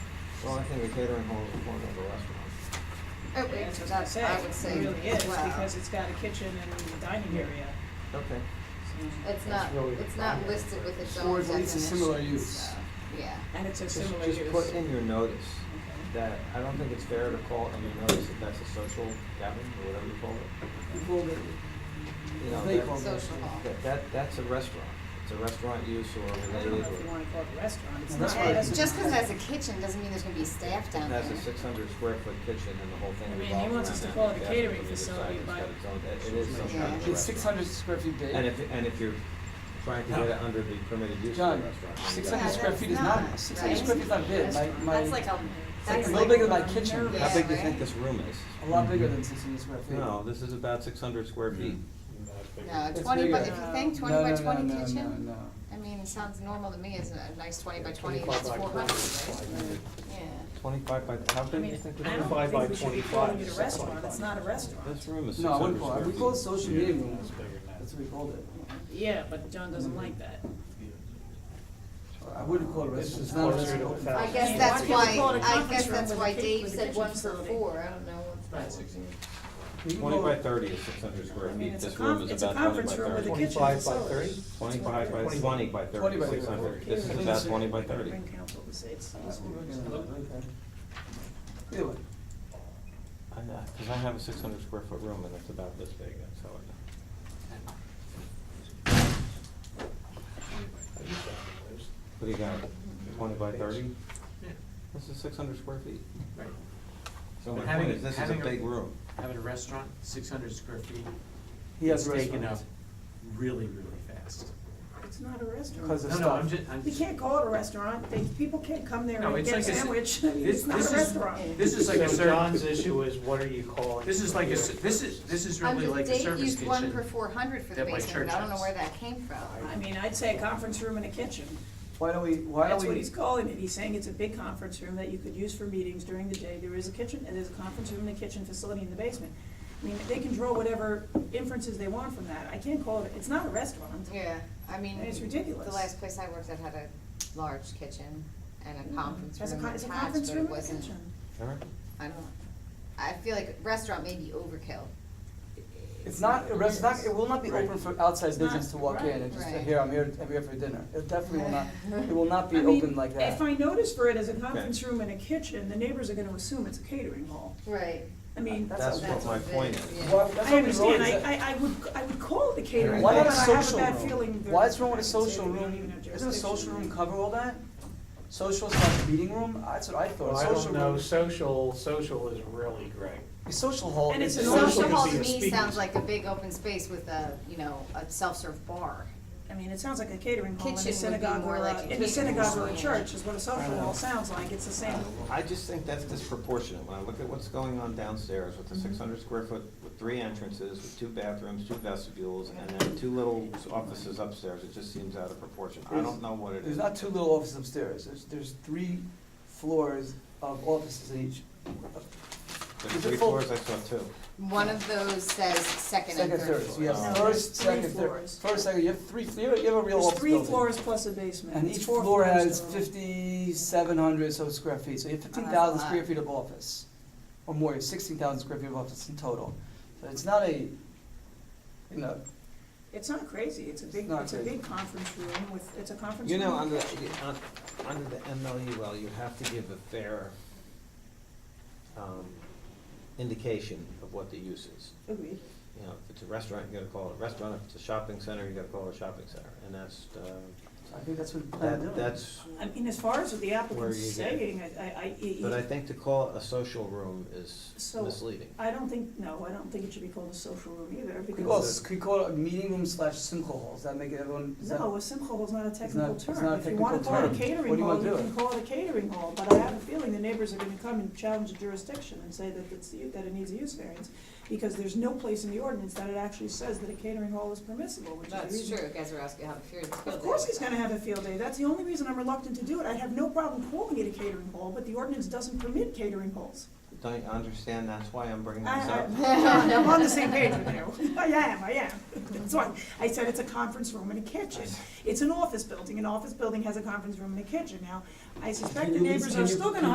The only thing the catering hall is a four-member restaurant. Yeah, Oh, wait, That's what I that, I would was say, saying, it really is, wow. because it's got a kitchen and a dining area. Okay. so- It's not, really it's not defined. listed with its Or own at definition, least a similar use. so, yeah. And it's a Just- similar use. Just put in your notice Okay. that, I don't think it's fair to call in your notice that that's a social gathering, or whatever you call it. Well, the- You know, They that- call it Social hall. That, that, that's a restaurant. It's a restaurant use or I don't related know if you or, wanna call it a restaurant, it's not. Well, that's why- it doesn't- Just 'cause it has a kitchen doesn't mean there's gonna be staff down there. that's a six hundred square foot kitchen and the whole thing I mean, he revolves around that. wants us to call it a Yeah, catering from either side, facility, it's but- got its own- it- It is some kind of a Yeah. It's six restaurant. hundred square feet big. And if, and if you're trying to get it under the permitted use of John, the restaurant. then six you hundred gotta- square that's feet is not, not, six hundred square right? feet is not big, my, my. That's like a, It's that's like. a little bigger than my kitchen. nervous. How big do you Yeah, think right? this room is? A lot bigger than six hundred square feet. Mm-hmm. No, this is about six hundred square feet. Hmm. No, It's twenty by, if bigger. you think No, twenty by no, no, twenty kitchen? no, no, no. I mean, it sounds normal to me, as a nice twenty by twenty, that's four hundred, right? Yeah. Twenty-five by, how I big do you mean, think this I room is? don't think we should be calling it a restaurant, it's not a This restaurant. room is six No, I hundred wouldn't call square it, feet. we call it social meeting room, It's bigger than that. that's what we called it. Yeah, but John doesn't like that. I wouldn't call it a restaurant, it's not a closer to restaurant. a I Yeah, guess why that's can't why, we call it a I conference guess room that's with a why kit- Dave with a said kitchen one for facility? four, I don't know what that Right. was. We can Twenty call by it- thirty is six hundred square I mean, feet, it's a this room conf, is it's a about twenty conference by room with a thirty. kitchen Twenty-five by facility. thirty? It's Twenty-five by, whatever. twenty by thirty, Twenty by six thirty. hundred, this is about twenty by thirty. Bring counsel to say it's- That's what we're gonna do, okay. Either way, I know, cause I have a six hundred square foot room and it's about this big, that's how it. What do you got, twenty by thirty? This is six hundred square feet. So my But having point a- is, this is a having a- big room. having a restaurant, six hundred square feet. He has it's a taken restaurant. up really, really fast. It's not a restaurant. Because of No, no, I'm stuff. just, I'm We just, can't call it a restaurant, they, people can't come there No, and it's get a like a s- sandwich, I mean, this- it's not this a is- restaurant. this is like a So John's service, issue is what are you calling? this is like a, it? s- this is, this is I'm really just- like a service Dave used one for kitchen. four hundred for the that my basement, but I church don't know has. where that came from. I mean, I'd say a conference room and a kitchen. Why don't we, why don't That's we? what he's calling it. He's saying it's a big conference room that you could use for meetings during the day. There is a kitchen, and there's a conference room and a kitchen facility in the basement. I mean, they can draw whatever inferences they want from that. I can't call it, it's not a restaurant. Yeah, I mean. It's ridiculous. The last place I worked at had a large kitchen and a conference As Mm, a room con- It's a attached, conference but it room and a wasn't, kitchen. All right. I don't, I feel like restaurant may be overkill. It's not, a rest- not, it will not be Right. open for outside It's not- business to walk in and just say, Right. here, I'm here, I'm here for dinner. It definitely will not, it will not be I mean, open like that. If I notice for it as a conference room and a kitchen, the neighbors are gonna assume it's a catering hall. Right. I mean, That's That's what that's my what it point is, is. yeah. Well, that's I what we wrote, understand. is I, that- I, I would, I would call it a catering hall, Why but not I a have a social bad room? feeling. that Why is wrong I with a can say social we don't even room? have Doesn't a social jurisdiction. room cover all that? Social slash meeting room? That's what I Well, thought. I don't Social know, room- social, social is really great. A social hall. And it's is- an Social Social could hall be to a me speakeasy. sounds like a big open space with a, you know, a self-serve bar. I mean, it sounds like a catering hall in a Kitchen would be synagogue more or like a a, in a kitchen synagogue or hall. a church is what a social hall sounds like, it's the same. I just think that's disproportionate, when I look at what's going on downstairs with the six hundred square foot, with three entrances, with two bathrooms, two vestibules, and then two little offices upstairs, it just seems out of proportion, I don't know what it is. There's not two little offices upstairs. There's, there's three floors of offices in each. There's three floors, I saw two. One of those says second Second, and third, third so floor. you No, have first, there's three second, third, floors. first, second, you have three, you have you have a real There's office three building. floors plus a basement. And It's each four floor floors has total. fifty-seven hundred so square feet, so you have fifteen that's a thousand square lot. feet of office, or more, sixteen thousand square feet of office in total. So it's not a, you know, It's not crazy, it's a big, not it's a crazy. big conference room with, it's a conference You room. know, under, the- un- under the MLUL, you have to give a fair um, indication of what the use is. Agreed. You know, if it's a restaurant, you gotta call it a restaurant, if it's a shopping center, you gotta call it a shopping center, and that's, uh, so I think that's what we plan on that, doing. that's I mean, as far as what the Where applicant's you get- saying, I, I, But I I, think to call it a social room is So- misleading. I don't think, no, I don't think it should be called a social room either, Could we call, because, it- could we call it a meeting room slash simcha hall, does that make everyone, is that? no, a simcha hall is not a technical it's not a term. If you wanna technical call it a term. What catering do you wanna hall, you do? can call it a catering hall, but I have a feeling the neighbors are gonna come and challenge the jurisdiction and say that it's, that it needs a use variance, because there's no place in the ordinance that it actually says that a catering hall is permissible, which is the That's reason true, Gazarovski, have a fear of Of course he's gonna have a field day, that's the only reason I'm reluctant to do it, I'd have no problem calling it a catering hall, but the ordinance doesn't permit catering halls. Don't you understand, that's why I'm bringing I, this up? I, am on the same page with you, I am, I am, that's why, I said it's a conference room and a kitchen. It's an office building, an office building has a conference room and a kitchen, now, I suspect the Can you- neighbors can are you- still gonna